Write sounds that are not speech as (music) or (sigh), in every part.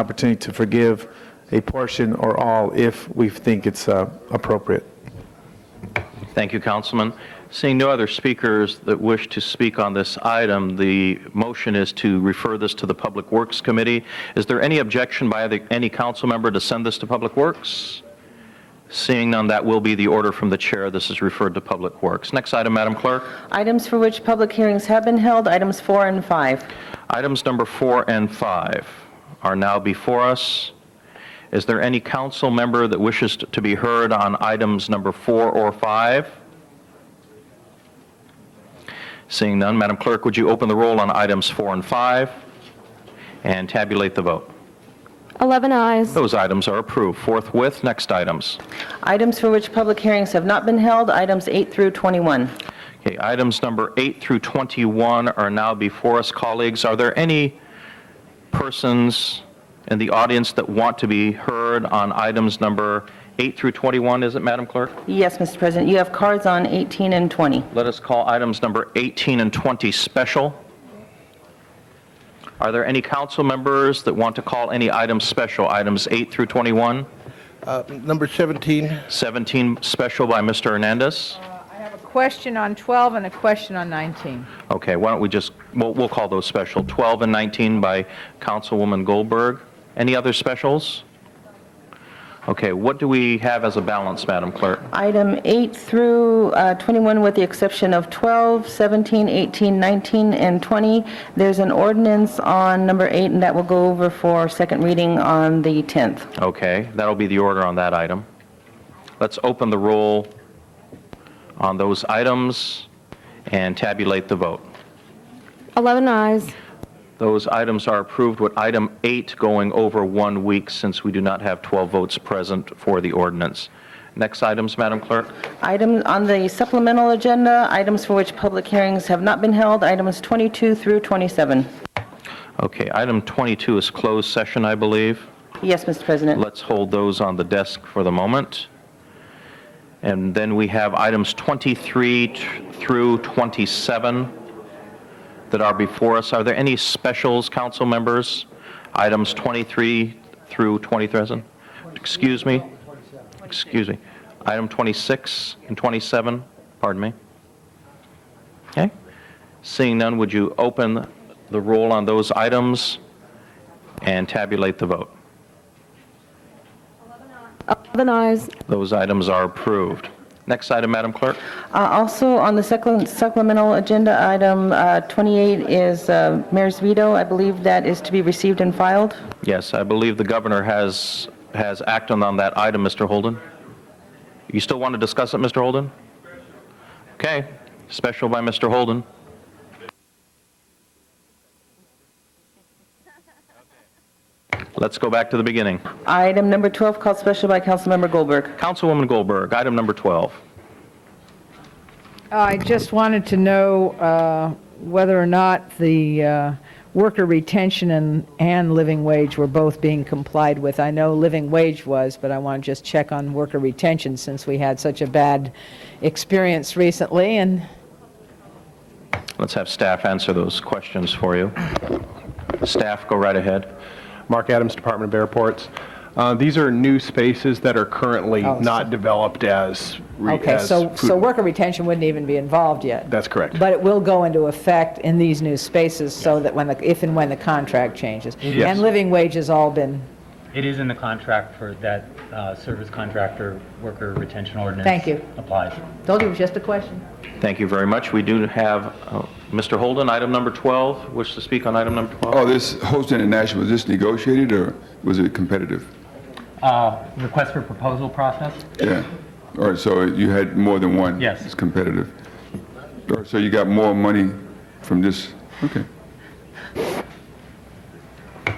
opportunity to forgive a portion or all if we think it's uh, appropriate. Thank you, Councilman. Seeing no other speakers that wish to speak on this item, the motion is to refer this to the Public Works Committee. Is there any objection by the- any council member to send this to Public Works? Seeing none, that will be the order from the chair. This is referred to Public Works. Next item, Madam Clerk. Items for which public hearings have been held, items four and five. Items number four and five are now before us. Is there any council member that wishes to be heard on items number four or five? Seeing none, Madam Clerk, would you open the roll on items four and five and tabulate the vote? 11 eyes. Those items are approved forthwith. Next items. Items for which public hearings have not been held, items eight through 21. Okay, items number eight through 21 are now before us, colleagues. Are there any persons in the audience that want to be heard on items number eight through 21, is it, Madam Clerk? Yes, Mr. President, you have cards on 18 and 20. Let us call items number 18 and 20 special. Are there any council members that want to call any items special, items eight through 21? Uh, Number uh, 17, 17 special by Mr. Hernandez? I have a question on 12 and a question on 19. Okay, why don't we just, we'll, we'll call those special, 12 and 19 by Councilwoman Goldberg. Any other specials? Okay, what do we have as a balance, Madam Clerk? Item eight through uh, 21, with the exception of 12, 17, 18, 19, and 20. There's an ordinance on number eight, and that will go over for second reading on the 10th. Okay, that'll be the order on that item. Let's open the roll on those items and tabulate the vote. 11 eyes. Those items are approved with item eight going over one week since we do not have 12 votes present for the ordinance. Next items, Madam Clerk? Item on the supplemental agenda, items for which public hearings have not been held, items 22 through 27. Okay, item 22 is closed session, I believe. Yes, Mr. President. Let's hold those on the desk for the moment. And then we have items 23 t- through 27 that are before us. Are there any specials, council members? Items 23 through 23? Excuse me? Excuse me. Item 26 and 27, pardon me. Okay. Seeing none, would you open the roll on those items and tabulate the vote? 11 eyes. Those items are approved. Next item, Madam Clerk. Uh, Also, on the secl- supplemental agenda, item uh, 28 is uh, Mayor's veto. I believe that is to be received and filed. Yes, I believe the governor has, has acted on that item, Mr. Holden. You still want to discuss it, Mr. Holden? Okay, special by Mr. (laughs) Holden. Let's go back to the beginning. Item number 12, called special by Councilmember Goldberg. Councilwoman Goldberg, item number 12. I just wanted to know uh, whether or not the uh, worker retention and, and living wage were both being complied with. I know living wage was, but I want to just check on worker retention since we had such a bad experience recently, and Let's have staff answer those questions for you. Staff, go right ahead. Mark Adams, Department of Airports. Uh, These are new spaces that are currently Oh, so- not developed as, re- Okay, as so, so food- worker retention wouldn't even be involved yet? That's correct. But it will go into effect in these new spaces so that when the, if and when the contract changes? Yes. And living wage has all been, It is in the contract for that uh, service contractor worker retention ordinance. Thank you. Applies. told you it was just a question. Thank you very much. We do have uh, Mr. Holden, item number 12, wish to speak on item number 12? Oh, this Host International, was this negotiated or was it competitive? Uh, Request for proposal process? Yeah. All right, so you had more than one? Yes. It's competitive. All right, so you got more money from this, okay.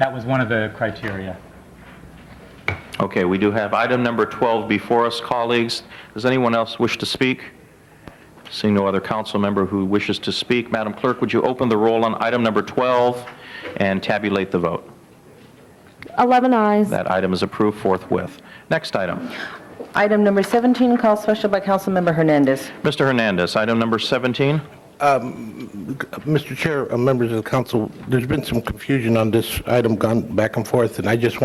That was one of the criteria. Okay, we do have item number 12 before us, colleagues. Does anyone else wish to speak? Seeing no other council member who wishes to speak, Madam Clerk, would you open the roll on item number 12 and tabulate the vote? 11 eyes. That item is approved forthwith. Next item. Item number 17, called special by Councilmember Hernandez. Mr. Hernandez, item number 17. Mr. Chair, uh, members of the council, there's been some confusion on this item gone back and forth, and I just want